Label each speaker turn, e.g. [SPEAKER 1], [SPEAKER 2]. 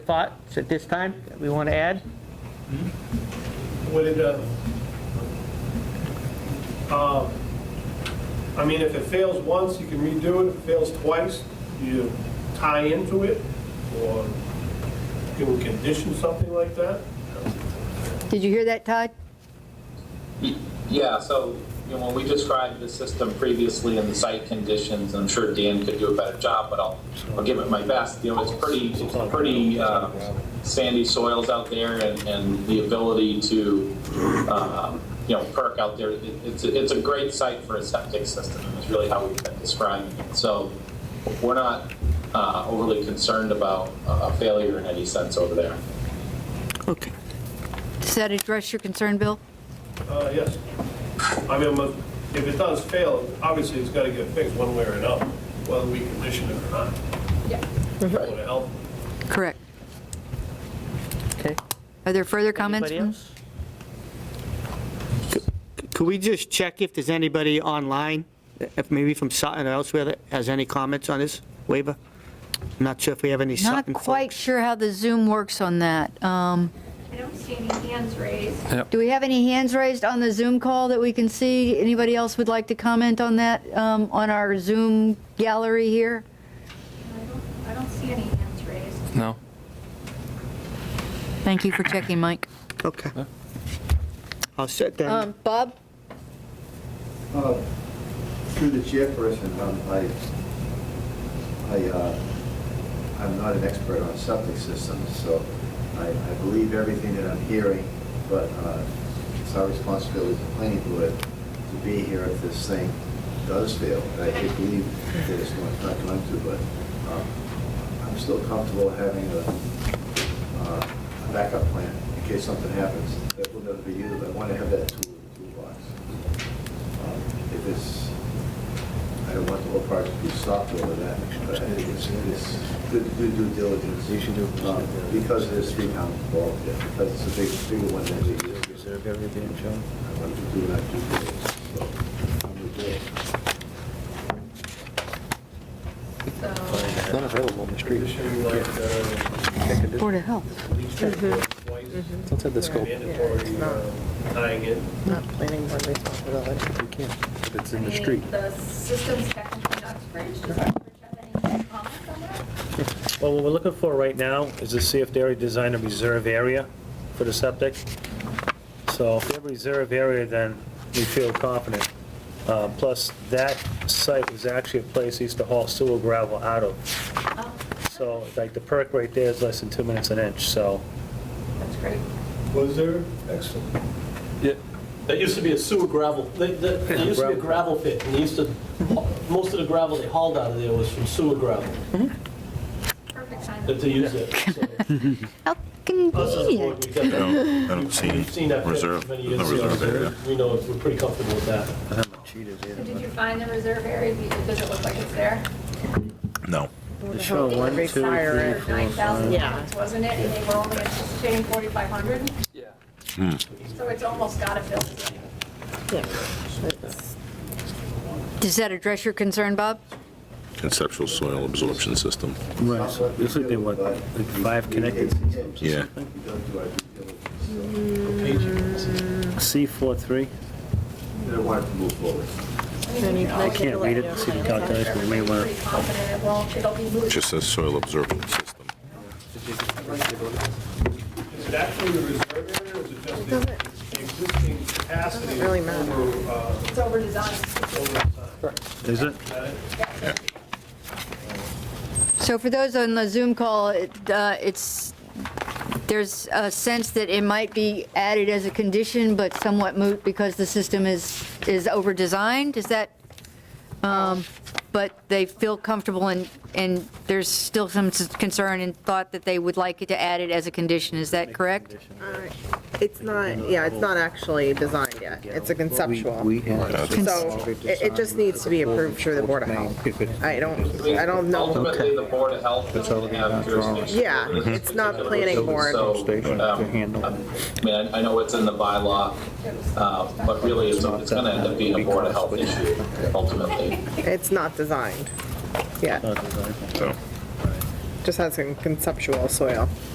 [SPEAKER 1] thoughts at this time that we want to add?
[SPEAKER 2] Would it, uh, uh, I mean, if it fails once, you can redo it. If it fails twice, you tie into it, or you can condition something like that.
[SPEAKER 3] Did you hear that, Todd?
[SPEAKER 4] Yeah, so, you know, when we described the system previously and the site conditions, I'm sure Dan could do a better job, but I'll, I'll give it my best. You know, it's pretty, it's pretty uh, sandy soils out there and, and the ability to, um, you know, perk out there. It- It's, a- it's a great site for a septic system, is really how we've been describing it. So we're not uh, overly concerned about a a failure in any sense over there.
[SPEAKER 1] Okay.
[SPEAKER 3] Does that address your concern, Bill?
[SPEAKER 2] Uh, Yes. I mean, but if it does fail, obviously it's got to get fixed one way or another, whether we condition it or not. Yeah. Would it help?
[SPEAKER 3] Correct.
[SPEAKER 1] Okay.
[SPEAKER 3] Are there further comments?
[SPEAKER 1] Anybody
[SPEAKER 3] from-
[SPEAKER 1] else?
[SPEAKER 5] Could we just check if there's anybody online, if maybe from Sutton or elsewhere that has any comments on this waiver? I'm not sure if we have any
[SPEAKER 3] Not
[SPEAKER 5] Sutton
[SPEAKER 3] quite
[SPEAKER 5] folks.
[SPEAKER 3] sure how the Zoom works on that. Um,
[SPEAKER 6] I don't see any hands raised.
[SPEAKER 3] Do we have any hands raised on the Zoom call that we can see? Anybody else would like to comment on that, um, on our Zoom gallery here?
[SPEAKER 6] I don't, I don't see any hands raised.
[SPEAKER 7] No.
[SPEAKER 3] Thank you for checking, Mike.
[SPEAKER 5] Okay. I'll sit down.
[SPEAKER 3] Um, Bob?
[SPEAKER 8] Uh, Through the chairperson, um, I, I, uh, I'm not an expert on septic systems, so I, I believe everything that I'm hearing, but uh, it's our responsibility as a planning board to be here if this thing does fail. And I do believe that it's not not going to, but um, I'm still comfortable having a, uh, a backup plan in case something happens that will never be used. I want to have that tool in the toolbox. Um, If it's, I don't want the whole project to be stopped over that, but I think it's, it's good to do due diligence. You should do. Because there's three pounds involved, yeah, because it's a big, bigger one than we use. Reserve everything, John? I want to do that due diligence, so I'm with Bill.
[SPEAKER 7] Not available in the street.
[SPEAKER 2] Condition like, uh,
[SPEAKER 3] Board of Health.
[SPEAKER 2] leach field twice,
[SPEAKER 8] Mm-hmm.
[SPEAKER 7] Let's have the scope.
[SPEAKER 2] mandatory uh, tying in.
[SPEAKER 9] Not planning board responsibility.
[SPEAKER 7] We can, if it's in
[SPEAKER 6] I
[SPEAKER 7] the
[SPEAKER 6] mean,
[SPEAKER 7] street.
[SPEAKER 6] The system's technically not bridged. Does Oxbridge have any comments on that?
[SPEAKER 10] Well, what we're looking for right now is to see if they already designed a reserve area for the septic. So if they have a reserve area, then we feel confident. Uh, Plus, that site was actually a place they used to haul sewer gravel out of.
[SPEAKER 6] Oh,
[SPEAKER 10] So like the perk right there is less than two minutes an inch, so
[SPEAKER 6] That's great.
[SPEAKER 2] Was there? Excellent.
[SPEAKER 11] Yeah, There used to be a sewer gravel, there, there there used to be a gravel pit, and they used to, most of the gravel they hauled out of there was from sewer gravel,
[SPEAKER 6] Perfect
[SPEAKER 11] that
[SPEAKER 6] timing.
[SPEAKER 11] they used it. So,
[SPEAKER 3] How
[SPEAKER 11] Us as a board, we've got
[SPEAKER 3] convenient.
[SPEAKER 11] that.
[SPEAKER 12] I don't see
[SPEAKER 11] We've seen that pit
[SPEAKER 12] reserve-
[SPEAKER 11] many years
[SPEAKER 12] no
[SPEAKER 11] ago,
[SPEAKER 12] reserve
[SPEAKER 11] so
[SPEAKER 12] area.
[SPEAKER 11] We know, we're pretty comfortable with that.
[SPEAKER 6] So did you find the reserve area? Does it look like it's there?
[SPEAKER 12] No.
[SPEAKER 9] Show one, two, three,
[SPEAKER 6] Or
[SPEAKER 9] four, five.
[SPEAKER 6] 9,000
[SPEAKER 9] Yeah.
[SPEAKER 6] pounds, wasn't it? And they were only anticipating 4,500?
[SPEAKER 11] Yeah.
[SPEAKER 6] So
[SPEAKER 12] Hmm.
[SPEAKER 6] it's almost got to fill.
[SPEAKER 9] Yeah. It's-
[SPEAKER 3] Does that address your concern, Bob?
[SPEAKER 12] Conceptual soil absorption system.
[SPEAKER 10] Right, so looks like they want, like, five connected
[SPEAKER 8] systems.
[SPEAKER 12] Yeah.
[SPEAKER 8] We don't do our due diligence,
[SPEAKER 10] C43,
[SPEAKER 8] so I don't want it to move forward.
[SPEAKER 10] I can't read it, see the calculation, we may want
[SPEAKER 6] Pretty confident it won't, it'll be moved.
[SPEAKER 12] Just says soil absorption system.
[SPEAKER 2] Is it actually the reserve area, or is it just the- the existing capacity over,
[SPEAKER 9] really matter.
[SPEAKER 2] uh,
[SPEAKER 6] It's over designed.
[SPEAKER 2] over time?
[SPEAKER 10] to, is it?
[SPEAKER 3] So for those on the Zoom call, it, uh, it's, there's a sense that it might be added as a condition, but somewhat moot because the system is, is over-designed, is that? um, But they feel comfortable and, and there's still some s- concern and thought that they would like it to add it as a condition, is that correct?
[SPEAKER 9] It's not, yeah, it's not actually designed yet. It's a conceptual. So
[SPEAKER 12] Cons-
[SPEAKER 9] it, it just needs to be approved through the Board of Health. I uh, don't, I don't know.
[SPEAKER 4] Ultimately, the Board of Health doesn't have jurisdiction.
[SPEAKER 9] Yeah,
[SPEAKER 4] over this
[SPEAKER 9] it's not
[SPEAKER 4] particular
[SPEAKER 9] planning
[SPEAKER 4] issue,
[SPEAKER 9] board.
[SPEAKER 4] so,
[SPEAKER 7] Mm-hmm. Station to
[SPEAKER 4] um,
[SPEAKER 7] handle.
[SPEAKER 4] I mean, I know it's in the bylaw, uh, but really, it's it's going to end up being a Board of Health issue ultimately.
[SPEAKER 9] It's not
[SPEAKER 10] Oh,
[SPEAKER 9] designed yet.
[SPEAKER 12] So.
[SPEAKER 9] Just has some conceptual soil.